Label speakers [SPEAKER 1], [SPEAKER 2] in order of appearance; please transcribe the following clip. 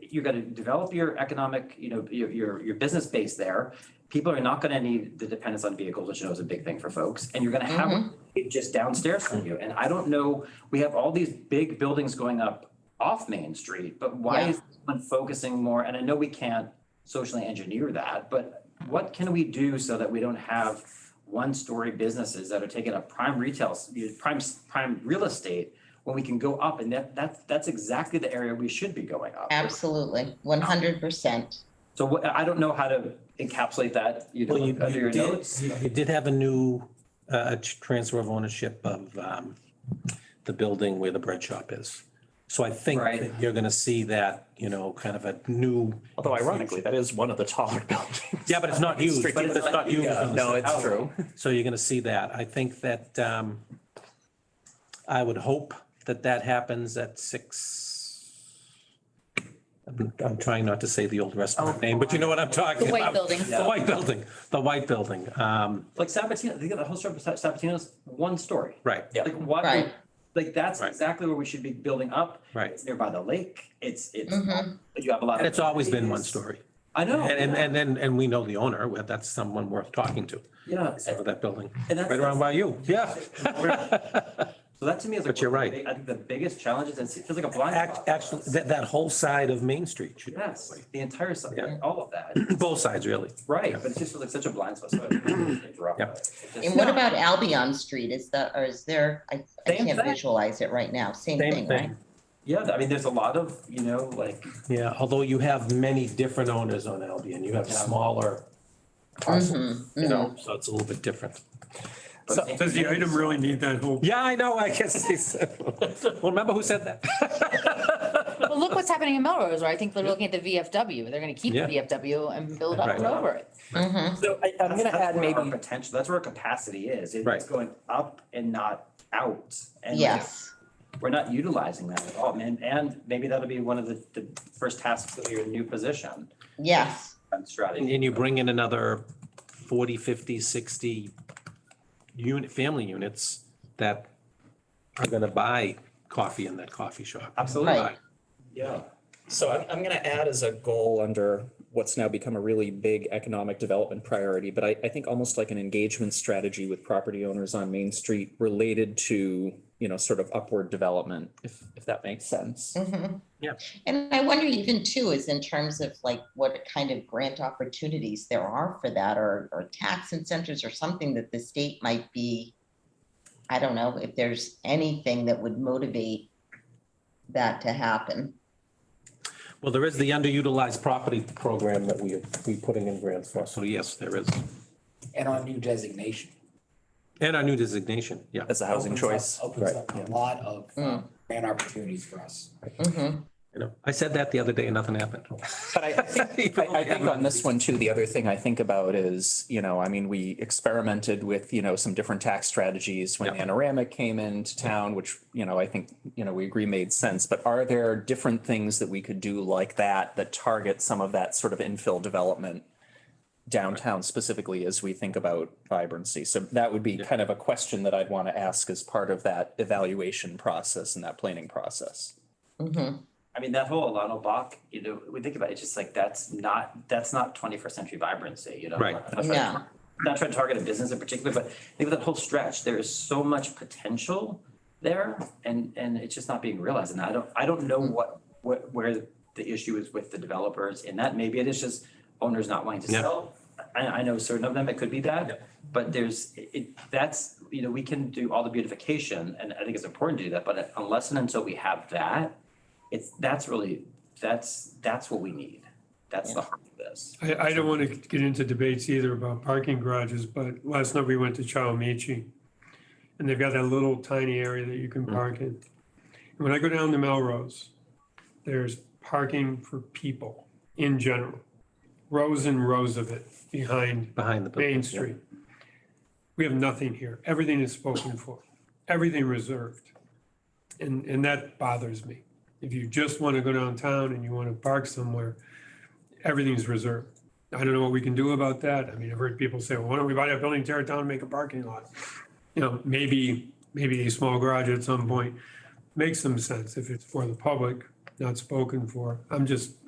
[SPEAKER 1] you're gonna develop your economic, you know, your, your, your business base there. People are not gonna need the dependence on vehicles, which I know is a big thing for folks, and you're gonna
[SPEAKER 2] Mm-hmm.
[SPEAKER 1] have it just downstairs from you. And I don't know, we have all these big buildings going up off Main Street, but why
[SPEAKER 2] Yeah.
[SPEAKER 1] is someone focusing more? And I know we can't socially engineer that, but what can we do so that we don't have one-story businesses that are taking up prime retail, s- you know, prime, s- prime real estate when we can go up and that, that's, that's exactly the area we should be going up.
[SPEAKER 2] Absolutely, one hundred percent.
[SPEAKER 1] So what, I don't know how to encapsulate that, you know,
[SPEAKER 3] Well, you,
[SPEAKER 1] under
[SPEAKER 3] you
[SPEAKER 1] your
[SPEAKER 3] did,
[SPEAKER 1] notes.
[SPEAKER 3] you you did have a new, uh, a transfer of ownership of, um, the building where the bread shop is. So I think
[SPEAKER 1] Right.
[SPEAKER 3] that you're gonna see that, you know, kind of a new.
[SPEAKER 4] Although ironically, that is one of the taller buildings.
[SPEAKER 3] Yeah, but it's not used,
[SPEAKER 4] Straight
[SPEAKER 3] but
[SPEAKER 4] to
[SPEAKER 3] it's
[SPEAKER 1] the-
[SPEAKER 3] not used. on the
[SPEAKER 4] No,
[SPEAKER 3] side.
[SPEAKER 4] it's true.
[SPEAKER 3] So you're gonna see that. I think that, um, I would hope that that happens at six. I'm- I'm trying not to say the old restaurant name, but you know what I'm talking
[SPEAKER 2] Oh. The white
[SPEAKER 3] about.
[SPEAKER 2] building.
[SPEAKER 3] The white building, the white building. Um,
[SPEAKER 1] Like Sabatino, they got the whole story of Sa- Sabatino's one story.
[SPEAKER 3] right,
[SPEAKER 4] Yeah.
[SPEAKER 1] Like why,
[SPEAKER 2] Right.
[SPEAKER 1] like that's
[SPEAKER 3] Right.
[SPEAKER 1] exactly where we should be building up.
[SPEAKER 3] Right.
[SPEAKER 1] It's nearby the lake. It's, it's,
[SPEAKER 2] Mhm.
[SPEAKER 1] you have a lot.
[SPEAKER 3] and
[SPEAKER 1] of-
[SPEAKER 3] it's always been one story.
[SPEAKER 1] I know.
[SPEAKER 3] And, and, and then, and we know the owner, well, that's someone worth talking to,
[SPEAKER 1] Yeah.
[SPEAKER 3] of that building,
[SPEAKER 1] And that's-
[SPEAKER 3] right around by you, yeah.
[SPEAKER 1] So that to me is like.
[SPEAKER 3] But you're
[SPEAKER 1] one of the
[SPEAKER 3] right.
[SPEAKER 1] big- I think the biggest challenge is it's- it feels like a blind
[SPEAKER 3] Act-
[SPEAKER 1] spot. for
[SPEAKER 3] Actually,
[SPEAKER 1] us.
[SPEAKER 3] that, that whole side of Main Street, should-
[SPEAKER 1] Yes, the entire side,
[SPEAKER 3] Yeah.
[SPEAKER 1] all of that.
[SPEAKER 3] both sides, really.
[SPEAKER 1] Right, but it just feels like such a blind spot. so I didn't drop
[SPEAKER 3] Yep.
[SPEAKER 1] it. It just-
[SPEAKER 2] And what about Albion Street? Is the, or is there, I, I
[SPEAKER 1] Same
[SPEAKER 2] can't
[SPEAKER 1] thing.
[SPEAKER 2] visualize it right now. Same thing, right?
[SPEAKER 1] Yeah, I mean, there's a lot of, you know, like,
[SPEAKER 3] Yeah, although you have many different owners on Albion, you have
[SPEAKER 1] Yeah.
[SPEAKER 3] smaller parcels,
[SPEAKER 2] Mhm,
[SPEAKER 3] you know, so it's a little bit different.
[SPEAKER 1] but
[SPEAKER 3] So-
[SPEAKER 1] it-
[SPEAKER 5] Does the item really need that whole?
[SPEAKER 3] Yeah, I know, I guess, it's- well, remember who said that?
[SPEAKER 6] Well, look what's happening in Melrose, right? I think they're looking at the VFW. They're gonna keep the
[SPEAKER 3] Yeah.
[SPEAKER 6] VFW and build up
[SPEAKER 3] Right.
[SPEAKER 6] and over it.
[SPEAKER 2] mhm.
[SPEAKER 4] So I, I'm gonna
[SPEAKER 1] That's- that's
[SPEAKER 4] add
[SPEAKER 1] where our
[SPEAKER 4] maybe,
[SPEAKER 1] Potential, that's where our capacity is. It- It's
[SPEAKER 3] Right.
[SPEAKER 1] going up and not out. And
[SPEAKER 2] Yes,
[SPEAKER 1] We're not utilizing that at all, man. And maybe that'll be one of the, the first tasks of your new position
[SPEAKER 2] yes.
[SPEAKER 1] and
[SPEAKER 3] And
[SPEAKER 1] strategy.
[SPEAKER 3] and you bring in another 40, 50, 60 unit, family units that are gonna buy coffee in that coffee shop.
[SPEAKER 1] Absolutely,
[SPEAKER 2] Right.
[SPEAKER 1] yeah.
[SPEAKER 4] so I'm, I'm gonna add as a goal under what's now become a really big economic development priority, but I, I think almost like an engagement strategy with property owners on Main Street related to, you know, sort of upward development, if, if that makes sense.
[SPEAKER 2] Mhm.
[SPEAKER 3] Yeah.
[SPEAKER 2] And I wonder even too, is in terms of like what kind of grant opportunities there are for that or, or tax incentives or something that the state might be. I don't know if there's anything that would motivate that to happen.
[SPEAKER 3] Well, there is the underutilized property program that we, we putting in grants for, so yes, there is.
[SPEAKER 7] and our new designation.
[SPEAKER 3] And our new designation, yeah.
[SPEAKER 4] As a housing
[SPEAKER 7] Opens up-
[SPEAKER 4] choice.
[SPEAKER 7] Opens
[SPEAKER 3] Right,
[SPEAKER 7] up a lot of uh,
[SPEAKER 2] Mm.
[SPEAKER 7] grant opportunities for us.
[SPEAKER 2] Mhm.
[SPEAKER 3] You know, I said that the other day and nothing happened.
[SPEAKER 4] But I, I think, I, I think on this one too, the other thing I think about is, you know, I mean, we experimented with, you know, some different tax strategies when
[SPEAKER 3] Yeah.
[SPEAKER 4] Anoramic came into town, which, you know, I think, you know, we agree made sense. But are there different things that we could do like that, that target some of that sort of infill development downtown specifically as we think about vibrancy? So that would be kind of a question that I'd want to ask as part of that evaluation process and that planning process.
[SPEAKER 2] Mhm.
[SPEAKER 1] I mean, that whole Alano Bach, you know, we think about it, it's just like, that's not, that's not twenty-first century vibrancy, you know?
[SPEAKER 3] Right.
[SPEAKER 1] Not trying to-
[SPEAKER 2] No.
[SPEAKER 1] Not trying to target a business in particular, but think of that whole stretch, there is so much potential there and, and it's just not being realized. And I don't, I don't know what, what, where the issue is with the developers in that. Maybe it is just owners not wanting to
[SPEAKER 3] Yeah.
[SPEAKER 1] sell. I, I know certain of them, it could be
[SPEAKER 3] Yeah.
[SPEAKER 1] that, but there's, it, that's, you know, we can do all the beautification and I think it's important to do that, but unless and until we have that, it's, that's really, that's, that's what we need. That's the heart of this.
[SPEAKER 5] I, I don't want to get into debates either about parking garages, but last night we went to Chow Michi. And they've got that little tiny area that you can park in. And when I go down to Melrose, there's parking for people in general. Rows and rows of it behind
[SPEAKER 3] Behind the. building,
[SPEAKER 5] Main
[SPEAKER 3] yeah.
[SPEAKER 5] Street. We have nothing here. Everything is spoken for, everything reserved. And, and that bothers me. If you just want to go downtown and you want to park somewhere, everything's reserved. I don't know what we can do about that. I mean, I've heard people say, well, why don't we buy that building, tear it down, and make a parking lot? You know, maybe, maybe a small garage at some point makes some sense if it's for the public, not spoken for. I'm just